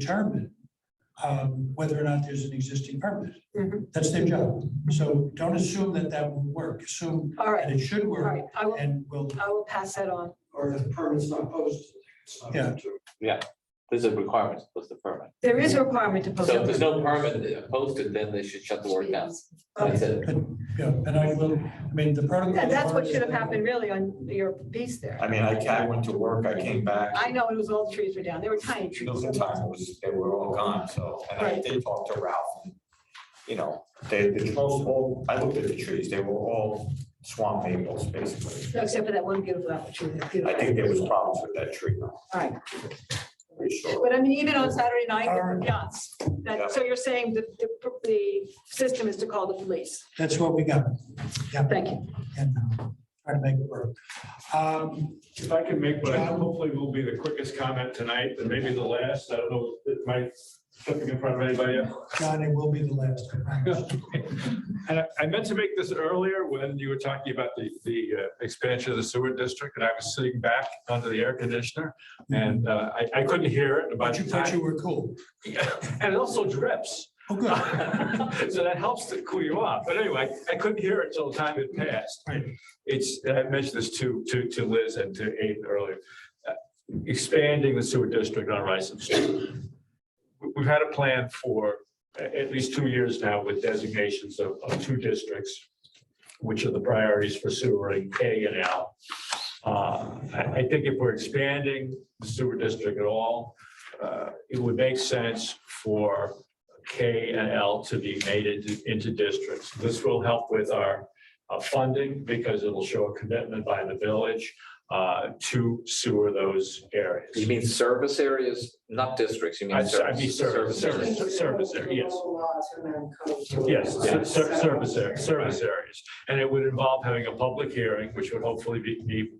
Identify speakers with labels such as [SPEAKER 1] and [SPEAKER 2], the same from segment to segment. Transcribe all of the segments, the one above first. [SPEAKER 1] determine um, whether or not there's an existing permit.
[SPEAKER 2] Mhm.
[SPEAKER 1] That's their job. So don't assume that that will work. Assume
[SPEAKER 2] All
[SPEAKER 1] that
[SPEAKER 2] right,
[SPEAKER 1] it should
[SPEAKER 2] all
[SPEAKER 1] work
[SPEAKER 2] right. I will,
[SPEAKER 1] and will,
[SPEAKER 2] I will pass that on.
[SPEAKER 3] or if the permit's not posted. it's not
[SPEAKER 1] Yeah.
[SPEAKER 3] true.
[SPEAKER 4] There's a requirement to post the permit.
[SPEAKER 2] There is a requirement to post.
[SPEAKER 4] So if there's no permit posted, then they should shut the work down. That's it.
[SPEAKER 1] uh, yeah, and I will, I mean, the protocol.
[SPEAKER 2] And that's what should have happened really on your piece
[SPEAKER 5] I
[SPEAKER 2] there.
[SPEAKER 5] mean, I, I went to work, I came back.
[SPEAKER 2] I know it was all trees were down. They were tiny trees.
[SPEAKER 5] Those times was, they were all gone, so, and I
[SPEAKER 2] Right.
[SPEAKER 5] did talk to Ralph. and, You know, they, the trees all, I looked at the trees, they were all swamp maples, basically.
[SPEAKER 2] Except for that one beautiful apple tree. that's
[SPEAKER 5] I
[SPEAKER 2] beautiful.
[SPEAKER 5] think there was problems with that tree. All
[SPEAKER 2] Right.
[SPEAKER 5] Pretty sure.
[SPEAKER 2] But I mean, even on Saturday night,
[SPEAKER 1] All right.
[SPEAKER 2] the yachts, that, so you're saying the, the, the system is to call the police.
[SPEAKER 1] That's what we got. Yeah,
[SPEAKER 2] Thank you.
[SPEAKER 1] and uh, try to make it work. Um,
[SPEAKER 6] If I can make, what I hopefully will be the quickest comment tonight, and maybe the last, I don't know, it might something in front of anybody.
[SPEAKER 1] John, it will be the last. I promise.
[SPEAKER 6] And I- I meant to make this earlier when you were talking about the, the uh, expansion of the sewer district, and I was sitting back under the air conditioner, and uh, I, I couldn't hear it about
[SPEAKER 1] But you,
[SPEAKER 6] the
[SPEAKER 1] but
[SPEAKER 6] time.
[SPEAKER 1] you were cool.
[SPEAKER 6] And it also drips.
[SPEAKER 1] Oh, good.
[SPEAKER 6] So that helps to cool you off. But anyway, I couldn't hear it till the time had passed. It's, and I mentioned this to, to, to Liz and to Abe earlier. uh, Expanding the sewer district on Rice Street. We- We've had a plan for a- at least two years now with designations of, of two districts, which are the priorities for sewer and K and L. Uh, I, I think if we're expanding the sewer district at all, uh, it would make sense for K and L to be made into, into districts. This will help with our uh, funding because it'll show a commitment by the village uh, to sewer those areas.
[SPEAKER 4] You mean service areas, not districts, you mean.
[SPEAKER 6] I I mean,
[SPEAKER 4] service-
[SPEAKER 6] service,
[SPEAKER 4] areas.
[SPEAKER 6] service, service, area, yes.
[SPEAKER 3] Local laws and then code.
[SPEAKER 6] Yes, ser- ser- service areas, service areas. And it would involve having a public hearing, which would hopefully be, be,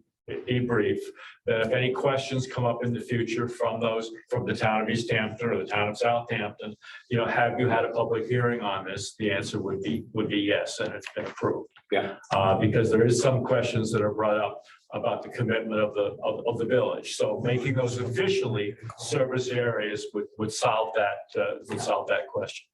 [SPEAKER 6] be brief. That if any questions come up in the future from those, from the town of East Hampton or the town of Southampton, you know, have you had a public hearing on this? The answer would be, would be yes, and it's been approved.
[SPEAKER 4] Yeah.
[SPEAKER 6] Uh, because there is some questions that are brought up about the commitment of the, of, of the village. So making those officially service areas would, would solve that, uh, would solve that question.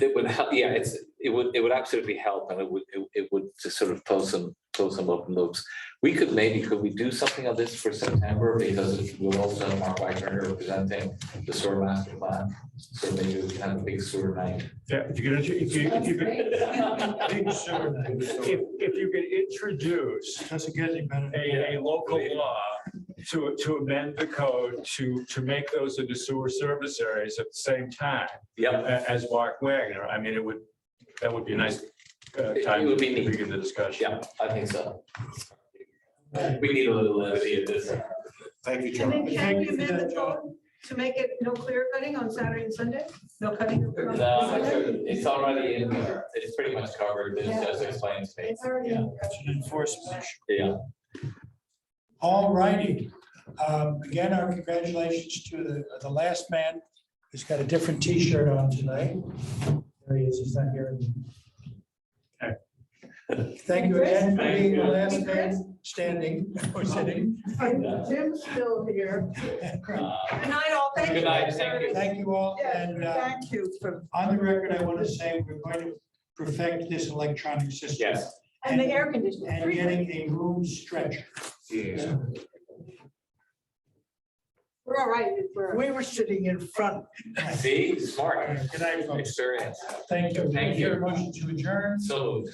[SPEAKER 4] It would help, yeah, it's, it would, it would absolutely help and it would, it- it would just sort of close some, close some open loops. We could maybe, could we do something on this for September because we'll also have Mark Wagner presenting the sewer master plan. So maybe we can have a big sewer night.
[SPEAKER 6] Yeah, if you could, if you, if you could,
[SPEAKER 1] Big sewer night.
[SPEAKER 6] if, if you could introduce
[SPEAKER 1] Doesn't get any better.
[SPEAKER 6] a, a local law to, to amend the code to, to make those into sewer service areas at the same time
[SPEAKER 4] Yep.
[SPEAKER 6] a- as Mark Wagner, I mean, it would, that would be a nice uh,
[SPEAKER 4] It- it
[SPEAKER 6] time to
[SPEAKER 4] would be neat.
[SPEAKER 6] begin the discussion.
[SPEAKER 4] Yeah, I think so. We need a little levity in this.
[SPEAKER 5] Thank you,
[SPEAKER 2] And then can
[SPEAKER 5] John.
[SPEAKER 2] we
[SPEAKER 1] Thank you for
[SPEAKER 2] amend
[SPEAKER 1] that,
[SPEAKER 2] the code to make it no clear cutting on Saturday and Sunday? No cutting? on
[SPEAKER 4] No, I'm
[SPEAKER 2] Sunday?
[SPEAKER 4] sure uh, it's already in there. It's pretty much covered. It's just explained to me.
[SPEAKER 2] It's already.
[SPEAKER 1] Yeah, it's an enforcement issue.
[SPEAKER 4] Yeah.
[SPEAKER 1] All righty. Um, Again, our congratulations to the, the last man who's got a different T-shirt on tonight. There he is, he's not here. Thank you again for being the last man standing or sitting.
[SPEAKER 2] And Jim's still here.
[SPEAKER 4] Uh,
[SPEAKER 2] Good night, all. Thank you.
[SPEAKER 4] Good night, thank you.
[SPEAKER 1] Thank you all,
[SPEAKER 2] Yeah,
[SPEAKER 1] and uh,
[SPEAKER 2] thank you for,
[SPEAKER 1] on the record, I want to say we're going to perfect this electronic system.
[SPEAKER 4] Yes.
[SPEAKER 2] and the air conditioning.
[SPEAKER 1] And getting a room stretcher.
[SPEAKER 2] We're all right. We're-
[SPEAKER 7] We were sitting in front.
[SPEAKER 4] See, smart
[SPEAKER 1] Good night, folks.
[SPEAKER 4] experience.
[SPEAKER 1] Thank you.
[SPEAKER 4] Thank you.
[SPEAKER 1] Motion to adjourn.
[SPEAKER 4] So.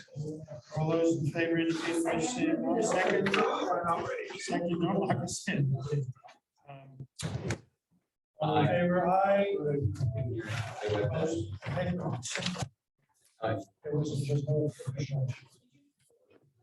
[SPEAKER 1] All those in favor indicate by saying one second. Second, no, like I said. Um, All in
[SPEAKER 4] Aye.
[SPEAKER 1] favor, aye.
[SPEAKER 4] I went,
[SPEAKER 1] Opposed? It wasn't just. no official.